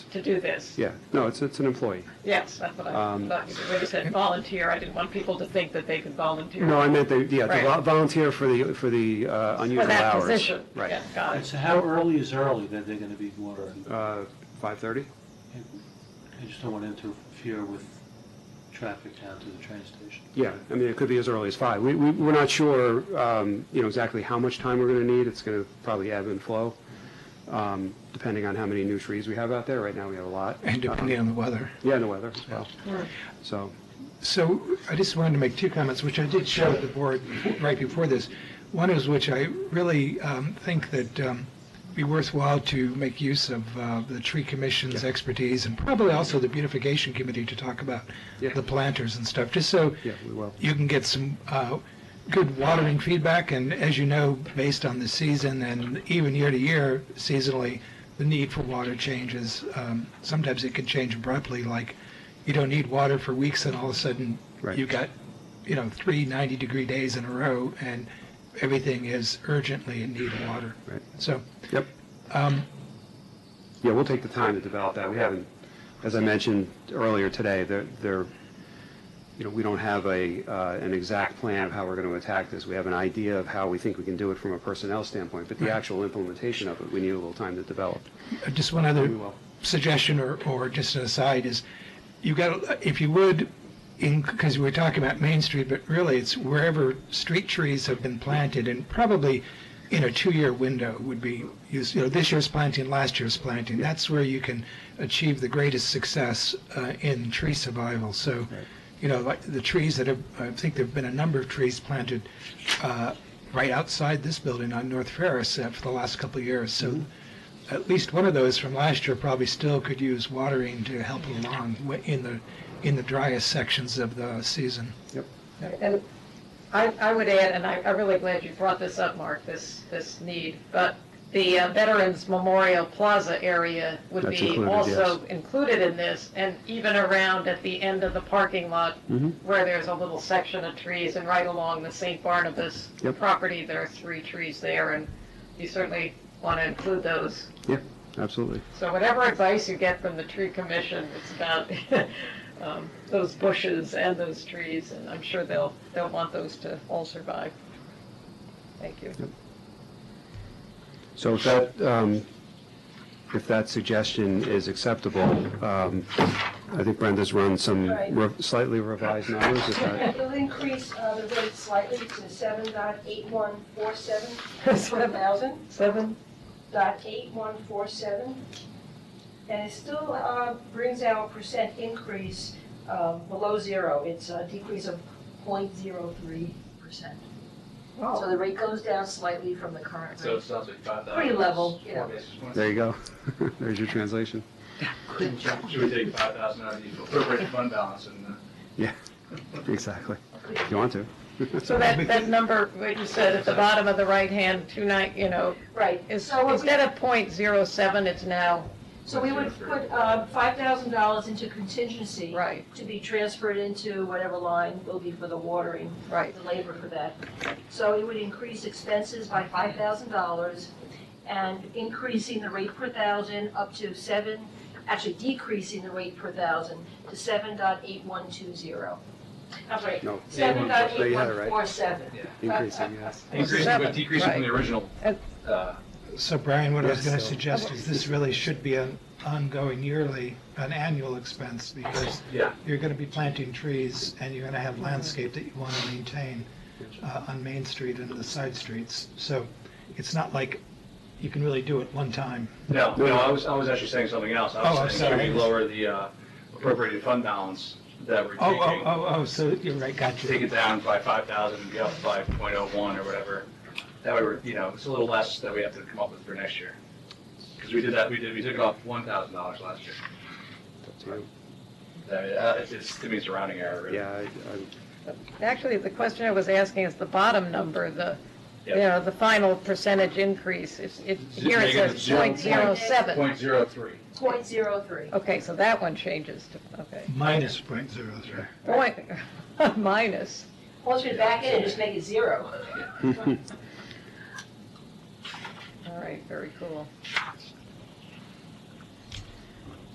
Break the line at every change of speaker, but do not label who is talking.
to do this.
Yeah, no, it's, it's an employee.
Yes, that's what I
Um,
thought. When you said volunteer, I didn't want people to think that they could volunteer.
No, I meant the, yeah, the vol-
Right.
volunteer for the, for the uh,
For
unusual
that
hours.
position.
Right.
Yeah, got
And
it.
so how early is early that they're gonna be watering?
Uh, 5:30?
I just don't want to interfere with traffic down to the train station.
Yeah, I mean, it could be as early as five. We, we, we're not sure, um, you know, exactly how much time we're going to need. It's going to probably ebb and flow, um, depending on how many new trees we have out there. Right now, we have a lot. Uh,
and depending on the weather.
Yeah, and the weather as well.
Right.
So,
So I just wanted to make two comments, which I did share with the board right before this. One is which I really um, think that um, be worthwhile to make use of uh, the tree commission's expertise and probably also the beautification committee to talk about
Yeah.
the planters and stuff, just so
yeah, we will.
you can get some uh, good watering feedback. And as you know, based on the season and even year to year seasonally, the need for water changes. Um, sometimes it can change abruptly, like you don't need water for weeks and all of a sudden
Right.
you got, you know, three 90 degree days in a row and everything is urgently in need of water.
Right.
So,
Yep.
um,
Yeah, we'll take the time to develop that. We haven't, as I mentioned earlier today, there, there, you know, we don't have a, uh, an exact plan of how we're going to attack this. We have an idea of how we think we can do it from a personnel standpoint, but the actual implementation of it, we need a little time to develop.
just one other
We will.
suggestion or, or just an aside is, you got, if you would, in, because we're talking about Main Street, but really it's wherever street trees have been planted and probably in a two-year window would be, used. you know, this year's planting, last year's planting. That's where you can achieve the greatest success uh, in tree survival. So, you know, like the trees that have, I think there've been a number of trees planted uh, right outside this building on North Ferris uh, for the last couple of years.
Mm-hmm.
So at least one of those from last year probably still could use watering to help it along wi- in the, in the driest sections of the season.
Yep.
And I, I would add, and I, I'm really glad you brought this up, Mark, this, this need, but the uh, Veterans Memorial Plaza area would
That's
be
included,
also included in this, and even around at the end of the parking lot,
Mhm.
where there's a little section of trees, and right along the St. Barnabas
Yep.
property, there are three trees there, and you certainly want to include those.
Yeah, absolutely.
So whatever advice you get from the tree commission, it's about um, those bushes and those trees, and I'm sure they'll, they'll want those to all survive. Thank you.
So if that, um, if that suggestion is acceptable, um, I think Brenda's run some
Right.
re- slightly revised numbers, is that?
We'll increase uh, the rate slightly to seven dot eight one four seven per thousand,
Seven?
dot eight one four seven. And it still uh, brings our percent increase um, below zero. It's a decrease of point zero three percent.
Oh.
So the rate goes down slightly from the current
So
rate.
it sounds like five thousand.
Pretty level, you know.
There you go. There's your translation.
Should we take five thousand out of the appropriate fund balance and, uh,
Yeah, exactly. If you want to.
So that, that number, what you said at the bottom of the right hand, two nine, you know,
Right,
is,
so it
instead of point zero seven, it's now,
So we would put uh, $5,000 into contingency.
Right.
To be transferred into whatever line will be for the watering,
right,
the labor for that. So it would increase expenses by $5,000 and increasing the rate per thousand up to seven, actually decreasing the rate per thousand to 7.8120. I'm sorry,
No.
7.8147.
yeah.
Increasing, yes.
Increasing, but decreasing from the original,
And-
uh,
So Brian, what I was
Yes,
going to
so-
suggest is this really should be an ongoing yearly, an annual expense because
yeah.
you're going to be planting trees and you're going to have landscape that you want to maintain uh, on Main Street and the side streets. So it's not like you can really do it one time.
No, no, I was, I was actually saying something else.
Oh,
I
I'm
was saying,
sorry.
should we lower the uh, appropriated fund balance that we're
Oh, oh,
taking?
oh, oh, so you're right, got
Take
you.
it down by five thousand and be up by point oh one or whatever. That way, we're you know, it's a little less that we have to come up with for next year. Because we did that, we did, we took off one thousand dollars last year. Uh, It's, it's, to me, it's a rounding error, really.
Yeah, I- I-
actually, the question I was asking is the bottom number, the, you
Yeah.
know, the final percentage increase, it's, it,
Z-
here it
make it
says
zero
point zero
point-
seven.
Point zero three.
0.03.
Okay, so that one changes to, okay.
Minus point zero three.
Point, minus.
Once we back in, just make it zero.
All right, very cool.